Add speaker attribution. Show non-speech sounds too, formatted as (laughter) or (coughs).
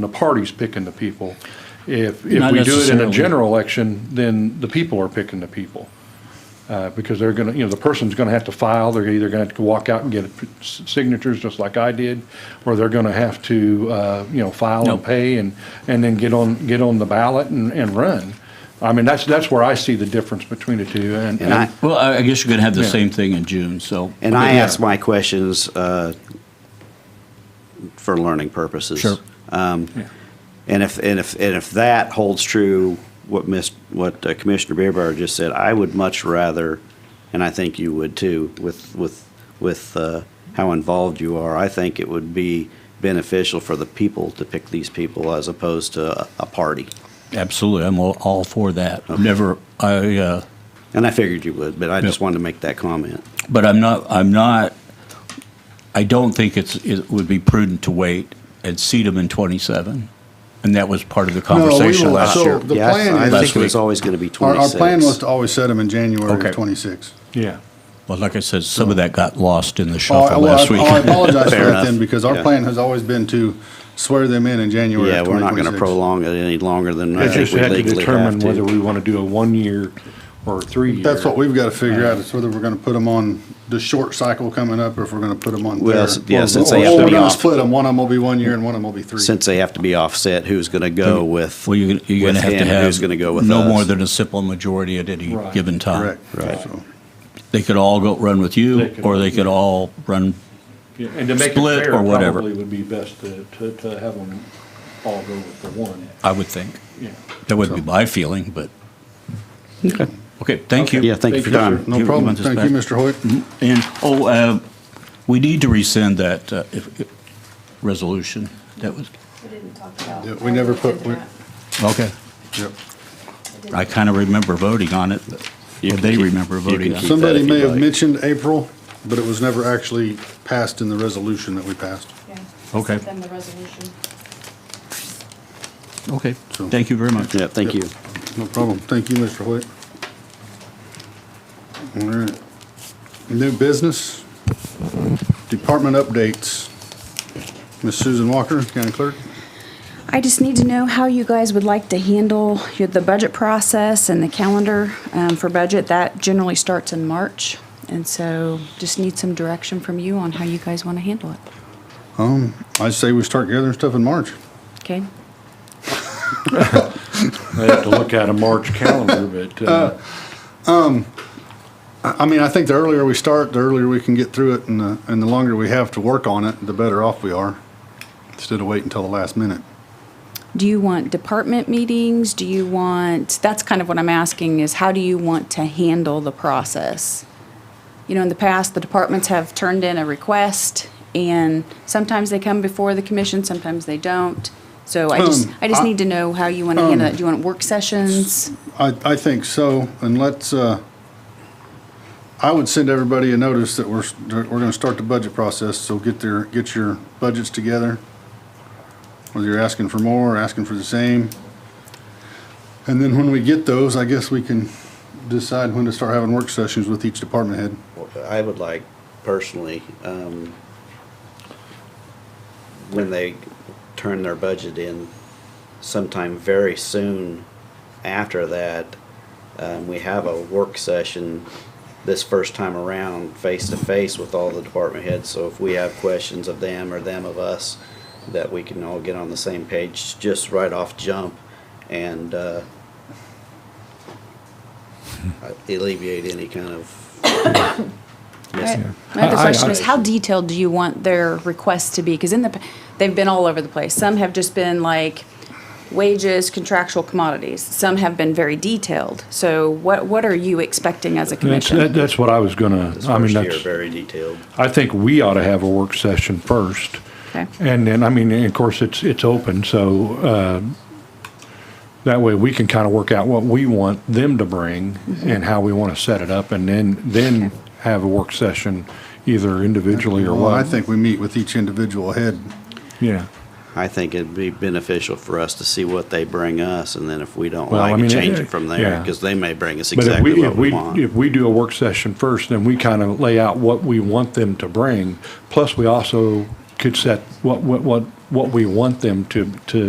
Speaker 1: the party's picking the people. If, if
Speaker 2: Not
Speaker 1: we do it in a
Speaker 2: necessarily.
Speaker 1: general election, then the people are picking the people. Uh, Because they're gonna, you know, the person's gonna have to file, they're either gonna have to walk out and get s- signatures, just like I did, or they're gonna have to, uh, you know, file
Speaker 2: No.
Speaker 1: and pay and, and then get on, get on the ballot and, and run. I mean, that's, that's where I see the difference between the two, and.
Speaker 3: And I,
Speaker 2: Well, I I guess you're going to have the
Speaker 1: Yeah.
Speaker 2: same thing in June, so.
Speaker 3: and I
Speaker 1: Yeah.
Speaker 3: ask my questions uh, for learning purposes.
Speaker 2: Sure.
Speaker 3: Um,
Speaker 1: Yeah.
Speaker 3: And if, and if, and if that holds true, what Miss, what uh, Commissioner Beerbauer just said, I would much rather, and I think you would too, with, with, with uh, how involved you are, I think it would be beneficial for the people to pick these people as opposed to a, a party.
Speaker 2: Absolutely, I'm all- all for that. I've Never, I, uh,
Speaker 3: And I figured you would, but I just
Speaker 2: Yeah.
Speaker 3: wanted to make that comment.
Speaker 2: but I'm not, I'm not, I don't think it's, it would be prudent to wait and seat them in 27. And that was part of the conversation
Speaker 4: will-
Speaker 2: last
Speaker 4: so-
Speaker 2: year.
Speaker 4: The
Speaker 3: Yeah, I-
Speaker 4: plan
Speaker 3: I think
Speaker 4: is-
Speaker 3: it was
Speaker 2: Last week.
Speaker 3: always going to be
Speaker 4: Our, our
Speaker 3: twenty-six.
Speaker 4: plan was to always set them in January
Speaker 2: Okay.
Speaker 4: of '26.
Speaker 1: Yeah.
Speaker 2: Well, like I said, some of that got lost in the
Speaker 4: Oh,
Speaker 2: shuffle
Speaker 4: well,
Speaker 2: last
Speaker 4: I-
Speaker 2: week.
Speaker 4: oh,
Speaker 3: (laughs)
Speaker 4: I apologize for
Speaker 3: Fair
Speaker 4: that
Speaker 3: enough.
Speaker 4: then, because our
Speaker 3: Yeah.
Speaker 4: plan has always been to swear them in in January
Speaker 3: Yeah,
Speaker 4: of
Speaker 3: we're not going to
Speaker 4: 2026.
Speaker 3: prolong it any longer than I
Speaker 1: It's
Speaker 3: think
Speaker 1: just
Speaker 3: we
Speaker 1: had to
Speaker 3: legally have
Speaker 1: determine whether
Speaker 3: to.
Speaker 1: we want to do a one-year or a three-year.
Speaker 4: That's what we've got to figure out, is whether we're going to put them on the short cycle coming up, or if we're going to put them on
Speaker 3: Well,
Speaker 4: there.
Speaker 3: s- yeah,
Speaker 4: Or-
Speaker 3: since they
Speaker 4: or
Speaker 3: have to
Speaker 4: we're
Speaker 3: be
Speaker 4: gonna
Speaker 3: off.
Speaker 4: Split them, one of them will be one year and one of them will be three.
Speaker 3: Since they have to be offset, who's going to go
Speaker 2: (laughs)
Speaker 3: with?
Speaker 2: Well, you're, you're going
Speaker 3: with
Speaker 2: to have
Speaker 3: him
Speaker 2: to
Speaker 3: and
Speaker 2: have.
Speaker 3: Who's going to go with
Speaker 2: No
Speaker 3: us?
Speaker 2: more than a simple majority at any
Speaker 1: Right.
Speaker 2: given time.
Speaker 4: Correct.
Speaker 3: Right.
Speaker 4: So,
Speaker 2: They could all go run with
Speaker 1: They
Speaker 2: you,
Speaker 1: could
Speaker 2: or
Speaker 1: all-
Speaker 2: they could all run,
Speaker 1: Yeah, And to make it
Speaker 2: Split
Speaker 1: fair,
Speaker 2: or whatever.
Speaker 1: probably would be best to, to, to have them all go with the one,
Speaker 2: I would think.
Speaker 1: yeah.
Speaker 2: That would be my feeling, but. Okay, thank you.
Speaker 3: Yeah, thank you for your time.
Speaker 2: You-
Speaker 4: No
Speaker 2: you
Speaker 4: problem.
Speaker 2: want this
Speaker 4: Thank
Speaker 2: back?
Speaker 4: you, Mm-hmm. Mr. Hoyt.
Speaker 2: And, oh, uh, we need to rescind that uh, if- if- resolution. That was,
Speaker 5: We didn't talk about.
Speaker 4: Yeah, we never put- we-
Speaker 5: that.
Speaker 2: okay.
Speaker 4: Yep.
Speaker 2: I kind of remember voting on it, but
Speaker 3: You
Speaker 2: or
Speaker 3: can
Speaker 2: they
Speaker 3: keep-
Speaker 2: remember
Speaker 3: you
Speaker 2: voting
Speaker 3: can
Speaker 2: on
Speaker 3: keep
Speaker 2: it.
Speaker 4: Somebody
Speaker 3: if
Speaker 4: may
Speaker 3: you'd
Speaker 4: have
Speaker 3: like.
Speaker 4: mentioned April, but it was never actually passed in the resolution that we passed.
Speaker 5: Yeah.
Speaker 2: Okay.
Speaker 5: Send them the resolution.
Speaker 2: Okay,
Speaker 4: So-
Speaker 2: thank you very much.
Speaker 3: Yeah, thank you.
Speaker 4: No problem. Thank you, Mr. Hoyt. All right. New business, department updates. Ms. Susan Walker, County Clerk.
Speaker 6: I just need to know how you guys would like to handle your- the budget process and the calendar um, for budget. That generally starts in March, and so just need some direction from you on how you guys want to handle it.
Speaker 4: Um, I say we start gathering stuff in March.
Speaker 6: Okay?
Speaker 1: I have to look at a March calendar, but, uh,
Speaker 4: I, I mean, I think the earlier we start, the earlier we can get through it, and the, and the longer we have to work on it, the better off we are, instead of waiting until the last minute.
Speaker 6: Do you want department meetings? Do you want, that's kind of what I'm asking is how do you want to handle the process? You know, in the past, the departments have turned in a request and sometimes they come before the commission, sometimes they don't. So I just,
Speaker 4: Um,
Speaker 6: I just
Speaker 4: I- um,
Speaker 6: need to know how you want to handle that. Do you want work sessions?
Speaker 4: I, I think so, and let's, uh, I would send everybody a notice that we're, that we're gonna start the budget process, so get their, get your budgets together. Whether you're asking for more, or asking for the same. And then when we get those, I guess we can decide when to start having work sessions with each department head.
Speaker 3: I would like personally, um, when they turn their budget in sometime very soon after that, um, we have a work session this first time around, face to face with all the department heads. So if we have questions of them or them of us, that we can all get on the same page just right off jump and, uh, alleviate any kind
Speaker 1: (coughs)
Speaker 3: of
Speaker 6: Right.
Speaker 3: mis-
Speaker 6: My other
Speaker 1: I- I-
Speaker 6: question
Speaker 1: I-
Speaker 6: is, how detailed do you want their requests to be? Because in the, p- they've been all over the place. Some have just been like wages, contractual commodities. Some have been very detailed. So what, what are you expecting as a
Speaker 1: that's, that-
Speaker 6: commission?
Speaker 1: that's what I was gonna,
Speaker 3: This
Speaker 1: I mean,
Speaker 3: first year,
Speaker 1: that's,
Speaker 3: very detailed.
Speaker 1: I think we ought to have a work session first.
Speaker 6: Okay.
Speaker 1: And then, I mean, and of course, it's, it's open, so, uh, that way we can kind of work out what we want them to bring
Speaker 2: Mm-hmm.
Speaker 1: and how we want to set it up, and then, then have a work session either individually or
Speaker 4: Well, I
Speaker 1: what.
Speaker 4: think we meet with each individual head.
Speaker 1: Yeah.
Speaker 3: I think it'd be beneficial for us to see what they bring us, and then if we don't
Speaker 1: Well, I
Speaker 3: like
Speaker 1: mean,
Speaker 3: it, change
Speaker 1: it-
Speaker 3: it from
Speaker 1: yeah.
Speaker 3: there, because they may bring us
Speaker 1: But if we,
Speaker 3: exactly
Speaker 1: if
Speaker 3: what
Speaker 1: we,
Speaker 3: we want.
Speaker 1: if we do a work session first, then we kind of lay out what we want them to bring. Plus, we also could set what, what, what, what we want them to, to